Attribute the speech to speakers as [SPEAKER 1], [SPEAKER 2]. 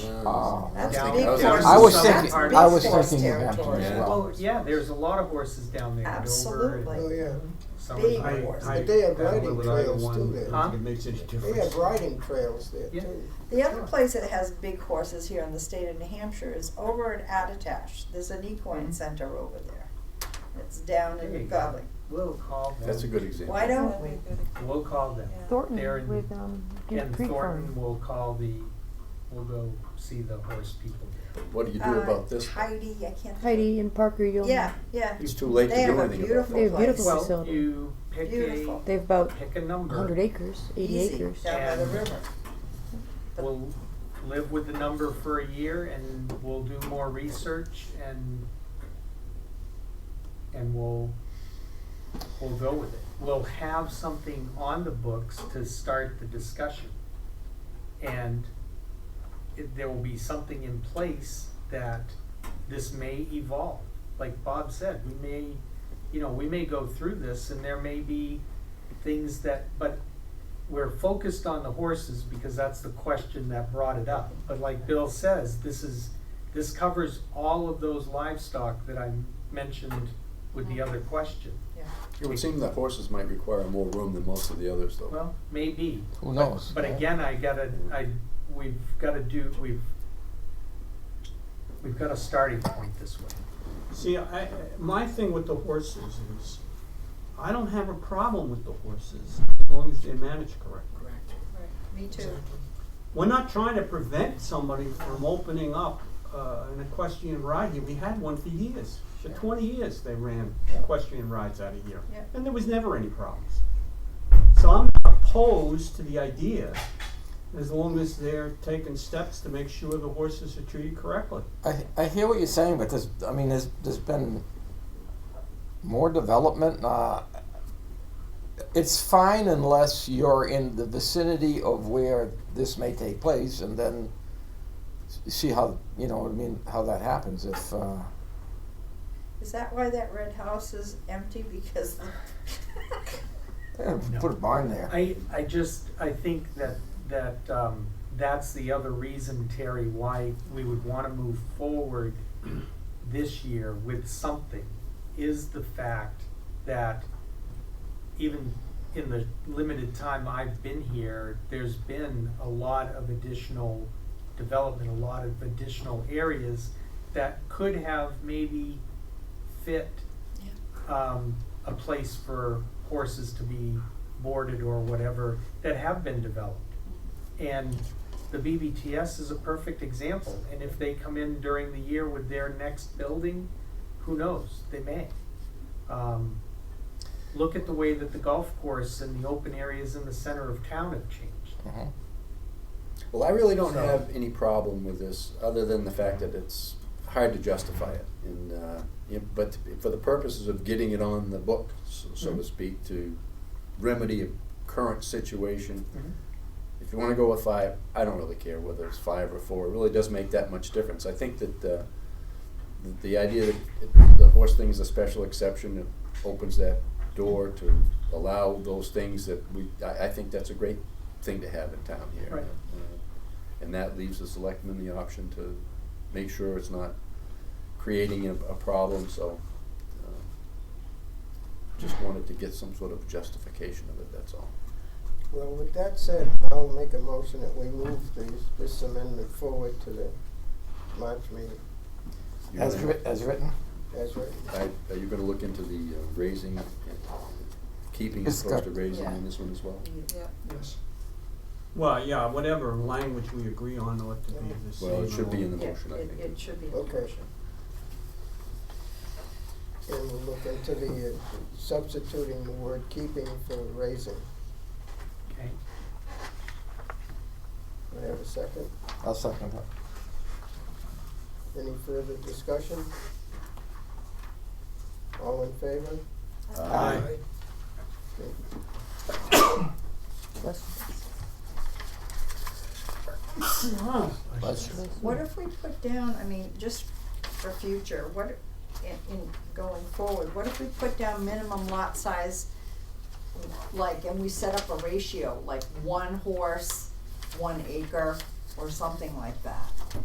[SPEAKER 1] Oh.
[SPEAKER 2] That's
[SPEAKER 3] Down-
[SPEAKER 2] big
[SPEAKER 1] I was
[SPEAKER 2] horses.
[SPEAKER 1] thinking-
[SPEAKER 2] That's big
[SPEAKER 1] I was
[SPEAKER 2] horse
[SPEAKER 1] thinking of
[SPEAKER 2] territory.
[SPEAKER 1] Hampton as
[SPEAKER 4] Yeah.
[SPEAKER 1] well.
[SPEAKER 5] Oh,
[SPEAKER 6] Well, yeah, there's a lot of horses down there.
[SPEAKER 2] Absolutely.
[SPEAKER 3] Oh, yeah.
[SPEAKER 2] Big
[SPEAKER 6] I,
[SPEAKER 2] horses.
[SPEAKER 6] I
[SPEAKER 3] But they have
[SPEAKER 6] battled
[SPEAKER 3] riding
[SPEAKER 6] with either
[SPEAKER 3] trails
[SPEAKER 6] one.
[SPEAKER 3] too there.
[SPEAKER 6] Huh?
[SPEAKER 4] It makes any
[SPEAKER 3] They have
[SPEAKER 4] difference.
[SPEAKER 3] riding trails there
[SPEAKER 6] Yeah.
[SPEAKER 3] too.
[SPEAKER 2] The other place that has big horses here in the state of New Hampshire is over at Attitash. There's an equine
[SPEAKER 5] Mm-hmm.
[SPEAKER 6] Mhm.
[SPEAKER 2] center over there. It's down
[SPEAKER 6] There you
[SPEAKER 2] in
[SPEAKER 6] go.
[SPEAKER 2] Godly.
[SPEAKER 6] We'll call them.
[SPEAKER 1] That's a good example.
[SPEAKER 2] Why don't we?
[SPEAKER 6] We'll call them. They're
[SPEAKER 5] Thornton
[SPEAKER 6] in-
[SPEAKER 5] with, um, Deep
[SPEAKER 6] And
[SPEAKER 5] Creek
[SPEAKER 6] Thornton
[SPEAKER 5] Farm.
[SPEAKER 6] will call the, we'll go see the horse people there.
[SPEAKER 1] What do you do
[SPEAKER 2] Uh,
[SPEAKER 1] about this?
[SPEAKER 2] Heidi, I can't. think-
[SPEAKER 5] Heidi and Parker, you'll.
[SPEAKER 2] Yeah, yeah.
[SPEAKER 1] It's too late to
[SPEAKER 2] They have
[SPEAKER 1] do
[SPEAKER 2] a
[SPEAKER 1] anything about
[SPEAKER 2] beautiful
[SPEAKER 5] They
[SPEAKER 1] that.
[SPEAKER 5] have beautiful
[SPEAKER 2] place.
[SPEAKER 6] Well,
[SPEAKER 5] facility.
[SPEAKER 6] you pick
[SPEAKER 2] Beautiful.
[SPEAKER 6] a,
[SPEAKER 5] They have about
[SPEAKER 6] pick a
[SPEAKER 5] a hundred
[SPEAKER 6] number.
[SPEAKER 5] acres, eighty
[SPEAKER 2] Easy,
[SPEAKER 5] acres.
[SPEAKER 2] Down by the
[SPEAKER 6] And-
[SPEAKER 2] river.
[SPEAKER 6] We'll live with the number for a year and we'll do more research and, and we'll, we'll go with it. We'll have something on the books to start the discussion. And it, there will be something in place that this may evolve. Like Bob said, we may, you know, we may go through this and there may be things that, but we're focused on the horses because that's the question that brought it up. But like Bill says, this is, this covers all of those livestock that I mentioned with the other question.
[SPEAKER 2] Yeah.
[SPEAKER 1] It would seem that horses might require more room than most of the others, though.
[SPEAKER 6] Well, maybe,
[SPEAKER 7] Who knows?
[SPEAKER 6] But again, I gotta, I, we've gotta do, we've, we've got a starting point this way.
[SPEAKER 8] See, I, my thing with the horses is, I don't have a problem with the horses as long as they're managed correctly.
[SPEAKER 2] Me too.
[SPEAKER 8] We're not trying to prevent somebody from opening up uh, an equestrian ride here. We had one for years. For twenty years, they ran equestrian rides out of here.
[SPEAKER 2] Yeah.
[SPEAKER 8] And there was never any problems. So I'm not opposed to the idea, as long as they're taking steps to make sure the horses are treated correctly.
[SPEAKER 7] I, I hear what you're saying, but there's, I mean, there's, there's been more development. Uh, it's fine unless you're in the vicinity of where this may take place, and then s- see how you know. What I mean, how that happens. If uh,
[SPEAKER 2] Is that why that red house is empty? Because
[SPEAKER 7] eh, put a barn there,
[SPEAKER 6] I, I just, I think that, that, um, that's the other reason, Terry, why we would wanna move forward this year with something, is the fact that even in the limited time I've been here, there's been a lot of additional development, a lot of additional areas that could have maybe fit um, a place for horses to be boarded or whatever that have been developed. And the BBTS is a perfect example. And if they come in during the year with their next building, who knows? They may. Um, look at the way that the golf course and the open areas in the center of town have changed.
[SPEAKER 7] Mhm.
[SPEAKER 1] Well, I really don't
[SPEAKER 6] So-
[SPEAKER 1] have any problem with this, other than the fact that it's hard to justify it. And, uh, yeah, but for the purposes of getting it on the book, so, so to
[SPEAKER 6] Mhm.
[SPEAKER 1] speak, to remedy a current situation,
[SPEAKER 6] Mm-hmm.
[SPEAKER 1] if you want to go with five, I don't really care whether it's five or four. It really does make that much difference. I think that uh, the, the idea that it, the horse thing is a special exception it opens that door to allow those things that we. I, I think that's a great thing to have in town here,
[SPEAKER 6] Right.
[SPEAKER 1] Uh, and that leaves the selectmen the option to make sure it's not creating a, a problem. So. uh, Just wanted to get some sort of justification of it, that's all.
[SPEAKER 3] Well, with that said, I'll make a motion that we move these, this amendment forward to the March meeting
[SPEAKER 1] You
[SPEAKER 7] as
[SPEAKER 1] wanna-
[SPEAKER 7] writ- as written.
[SPEAKER 3] as written.
[SPEAKER 1] I- Are you gonna look into the uh, raising, and keeping as
[SPEAKER 7] It's
[SPEAKER 1] opposed to
[SPEAKER 7] got-
[SPEAKER 1] raising
[SPEAKER 2] Yeah.
[SPEAKER 1] in this one as well?
[SPEAKER 8] Yes. Well, yeah, whatever language we agree on ought to be the same.
[SPEAKER 1] Well, it should be in the
[SPEAKER 2] Yeah,
[SPEAKER 1] motion, I
[SPEAKER 2] it,
[SPEAKER 1] think.
[SPEAKER 2] it should be in the
[SPEAKER 3] Okay.
[SPEAKER 2] motion.
[SPEAKER 3] And we'll look into the uh, substituting the word keeping for raising.
[SPEAKER 6] Okay.
[SPEAKER 3] I have a second.
[SPEAKER 7] I'll second that.
[SPEAKER 3] Any further discussion? All in favor?
[SPEAKER 1] Uh,
[SPEAKER 7] Aye. Bless you.
[SPEAKER 2] What if we put down, I mean, just for future, what, in, in going forward, what if we put down minimum lot size? Like, and we set up a ratio, like one horse, one acre, or something like that?